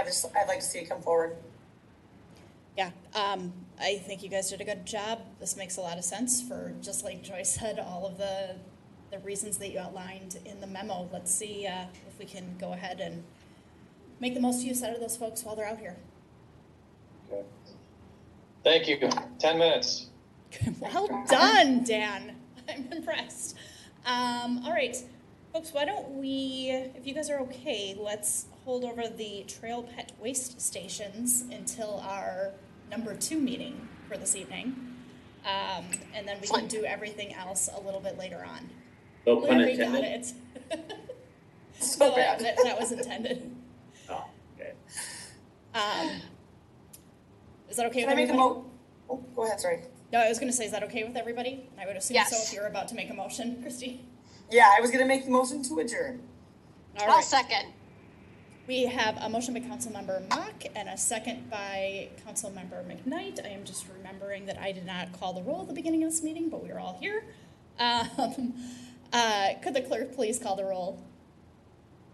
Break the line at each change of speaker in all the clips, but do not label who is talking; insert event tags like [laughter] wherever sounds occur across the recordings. I just, I'd like to see it come forward. [laughs]
Yeah, um, I think you guys did a good job. This makes a lot of sense for, just like Joy [laughs] said, all of the, the reasons that you outlined in the memo. Let's see, uh, if we can go ahead and make the most use out of those folks while they're out here.
Okay. Thank you. Ten minutes.
[laughs] Well done, Dan. I'm impressed. Um, all right, folks, why don't we, if you guys are okay, let's hold over the trail pet waste stations until our number two meeting for this evening. Um, and then we can do everything else a little bit later on.
No pun
Larry got
intended.
it. [laughs]
So
that,
bad.
that- that was intended.
Oh, okay.
Um, is that okay
Can I
with
make a
everybody?
mo, oh, go ahead, sorry.
no, I was going to say, is that okay with everybody? I would assume so
Yes.
if you're about to make a motion, Christy.
Yeah, I was gonna make the motion to adjourn.
All
I'll
right.
second.
We have a motion by Councilmember Mock and a second by Councilmember McKnight. I am just remembering that I did not call the roll at the beginning of this meeting, but we are all here. Um, [laughs] uh, could the clerk please call the roll?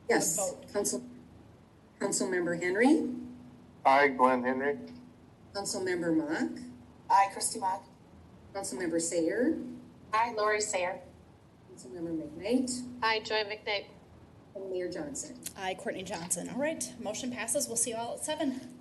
Yes,
vote.
Council, Councilmember Henry,
Hi, Glenn Henry.
Councilmember Mock,
Aye, Christie Mock.
Councilmember Sayer,
Hi, Lori Sayer.
Councilmember McKnight,
Hi, Joy McNabb.
and Mayor Johnson.
Aye, Courtney Johnson. All right, motion passes. We'll see you all at seven.